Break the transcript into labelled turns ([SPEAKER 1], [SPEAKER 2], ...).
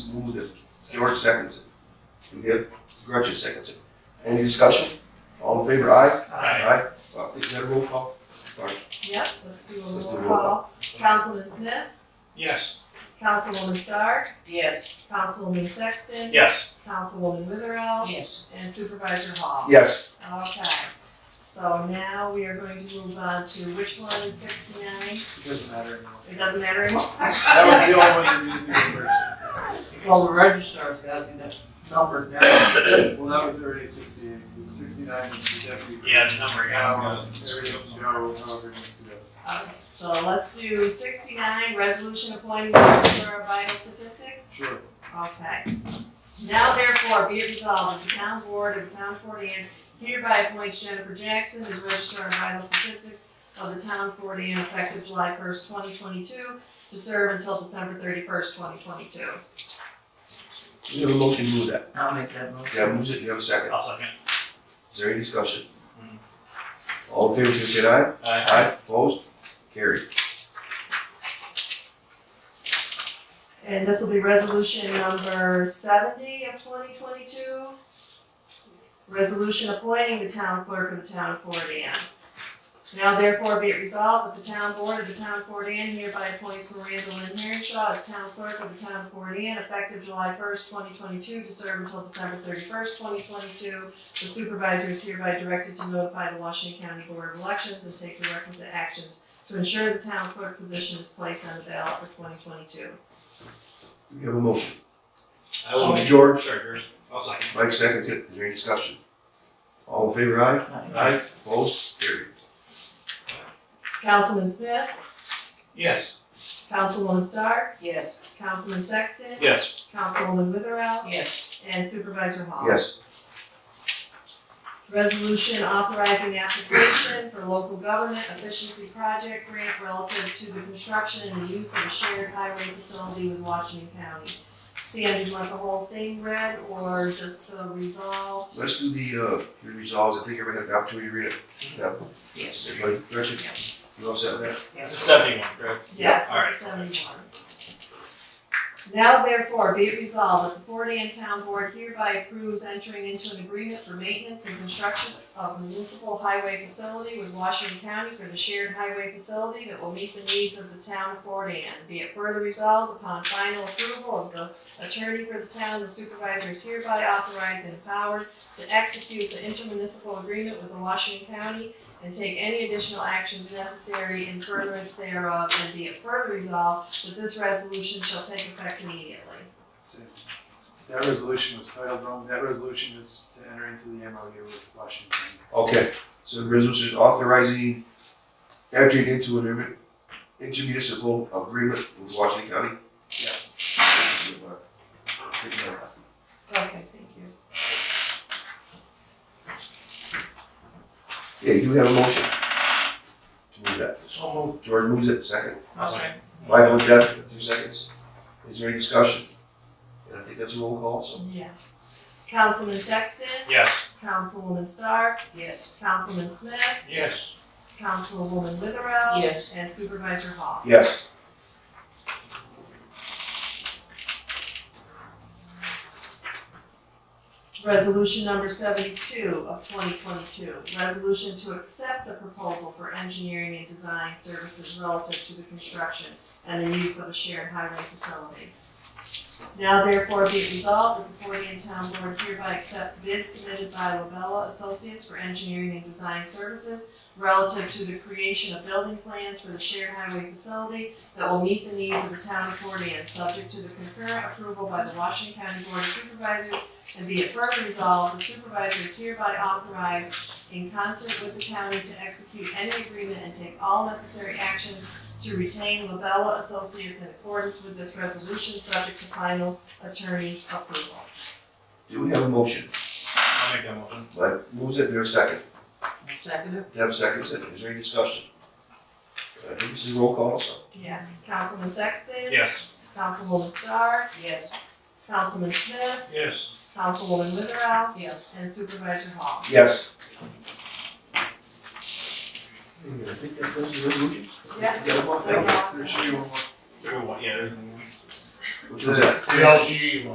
[SPEAKER 1] moved it. George seconds it. And here, Gretchen seconds it. Any discussion? All in favor, aye? Aye. Uh, is that a roll call?
[SPEAKER 2] Yep, let's do a
[SPEAKER 1] Let's do
[SPEAKER 2] roll
[SPEAKER 1] a roll
[SPEAKER 2] call. Councilman Smith,
[SPEAKER 3] Yes.
[SPEAKER 2] Councilwoman Stark,
[SPEAKER 4] Yes.
[SPEAKER 2] Councilwoman Sexton,
[SPEAKER 3] Yes.
[SPEAKER 2] Councilwoman Witherell,
[SPEAKER 4] Yes.
[SPEAKER 2] and Supervisor Hall.
[SPEAKER 1] Yes.
[SPEAKER 2] Okay, so now we are going to move on to which one is sixty-nine?
[SPEAKER 5] It doesn't matter anymore.
[SPEAKER 2] It doesn't matter anymore.
[SPEAKER 5] That was the only one you needed to do first.
[SPEAKER 4] Well, the registrar's got to be the number now.
[SPEAKER 5] Well, that was already sixty-eight, It's sixty-nine is the deputy.
[SPEAKER 3] Yeah, the number, yeah.
[SPEAKER 5] Now, there we go, Joe, however it needs to go.
[SPEAKER 2] Okay, So let's do sixty-nine, resolution appointing director of vital statistics.
[SPEAKER 5] Sure.
[SPEAKER 2] Okay. Now therefore be it resolved that the town board of the town of Fort Anne hereby appoints Jennifer Jackson as registrar of vital statistics of the town of Fort Anne effective July first, twenty twenty-two, to serve until December thirty-first, twenty twenty-two.
[SPEAKER 1] You have a motion to move that.
[SPEAKER 4] I'll make that motion.
[SPEAKER 1] Yeah, moves it. You have a second.
[SPEAKER 3] I'll second.
[SPEAKER 1] Is there any discussion?
[SPEAKER 3] Mm-hmm.
[SPEAKER 1] All in favor, say
[SPEAKER 3] Uh,
[SPEAKER 1] aye. Aye. Opposed? Carried.
[SPEAKER 2] And this will be resolution number seventy of twenty twenty-two. Resolution appointing the town clerk of the town of Fort Anne. Now therefore be it resolved that the town board of the town of Fort Anne hereby appoints Miranda Lynn Heronshaw as town clerk of the town of Fort Anne effective July first, twenty twenty-two, to serve until December thirty-first, twenty twenty-two. The supervisor is hereby directed to notify the Washington County Board of Elections and take the requisite actions to ensure the town clerk position is placed on the ballot for twenty twenty-two.
[SPEAKER 1] You have a motion.
[SPEAKER 3] I will make
[SPEAKER 1] George.
[SPEAKER 3] George. I'll second.
[SPEAKER 1] Mike seconds it. Is there any discussion? All in favor, aye? Aye. Opposed? Carried.
[SPEAKER 2] Councilman Smith,
[SPEAKER 3] Yes.
[SPEAKER 2] Councilwoman Stark,
[SPEAKER 4] Yes.
[SPEAKER 2] Councilman Sexton,
[SPEAKER 3] Yes.
[SPEAKER 2] Councilwoman Witherell,
[SPEAKER 4] Yes.
[SPEAKER 2] and Supervisor Hall.
[SPEAKER 1] Yes.
[SPEAKER 2] Resolution authorizing application for local government efficiency project grant relative to the construction and the use of a shared highway facility with Washington County. Sandy, do you want the whole thing read or just the resolved?
[SPEAKER 1] Let's do the, uh, the resolves. I think everybody had an opportunity to read it.
[SPEAKER 3] Mm-hmm.
[SPEAKER 1] Yeah.
[SPEAKER 4] Yes.
[SPEAKER 1] Everybody, Gretchen, you all set with that?
[SPEAKER 3] It's a seventy-one, correct?
[SPEAKER 2] Yes,
[SPEAKER 3] All right.
[SPEAKER 2] this is seventy-one. Now therefore be it resolved that the Fort Ann Town Board hereby approves entering into an agreement for maintenance and construction of municipal highway facility with Washington County for the shared highway facility that will meet the needs of the town of Fort Ann. Be it further resolved upon final approval of the attorney for the town, the supervisor is hereby authorized and empowered to execute the intermunicipal agreement with the Washington County and take any additional actions necessary in furtherance thereof, and be it further resolved that this resolution shall take effect immediately.
[SPEAKER 5] That's it. That resolution was titled wrong. That resolution is to enter into the MOU with Washington.
[SPEAKER 1] Okay, so the resolution authorizing entering into an agreement- intermunicipal agreement with Washington County.
[SPEAKER 5] Yes.
[SPEAKER 2] Okay, thank you.
[SPEAKER 1] Yeah, you do have a motion to move that.
[SPEAKER 4] So moved.
[SPEAKER 1] George moves it, second.
[SPEAKER 4] I'll second.
[SPEAKER 1] Michael and Jeff, two seconds. Is there any discussion? And I think that's a roll call, so.
[SPEAKER 2] Yes. Councilman Sexton,
[SPEAKER 3] Yes.
[SPEAKER 2] Councilwoman Stark,
[SPEAKER 4] Yes.
[SPEAKER 2] Councilman Smith,
[SPEAKER 3] Yes.
[SPEAKER 2] Councilwoman Witherell.
[SPEAKER 4] Yes.
[SPEAKER 2] And Supervisor Hall.
[SPEAKER 1] Yes.
[SPEAKER 2] Resolution number seventy-two of twenty twenty-two, resolution to accept the proposal for engineering and design services relative to the construction and the use of a shared highway facility. Now therefore be it resolved that the Fort Ann Town Board hereby accepts bids submitted by Lobella Associates for engineering and design services relative to the creation of building plans for the shared highway facility that will meet the needs of the town of Fort Ann, subject to the concurrent approval by the Washington County Board of Supervisors and be it further resolved, the supervisor is hereby authorized in concert with the county to execute any agreement and take all necessary actions to retain Labella Associates in accordance with this resolution, subject to final attorney approval.
[SPEAKER 1] Do we have a motion?
[SPEAKER 3] I'll make that motion.
[SPEAKER 1] Mike moves it, there's a second.
[SPEAKER 4] Second?
[SPEAKER 1] Deb seconds it. Is there any discussion? I think this is a roll call, so.
[SPEAKER 2] Yes. Councilman Sexton?
[SPEAKER 3] Yes.
[SPEAKER 2] Councilwoman Starr?
[SPEAKER 4] Yes.
[SPEAKER 2] Councilman Smith?
[SPEAKER 3] Yes.
[SPEAKER 2] Councilwoman Witherell?
[SPEAKER 4] Yes.
[SPEAKER 2] And Supervisor Hall?
[SPEAKER 1] Yes. I think that does the resolution.
[SPEAKER 2] Yes.
[SPEAKER 1] Yeah, well,
[SPEAKER 2] That's all.
[SPEAKER 5] There should be one more.
[SPEAKER 3] There we go. Yeah, there's.
[SPEAKER 6] Which one's that?
[SPEAKER 1] The LG one.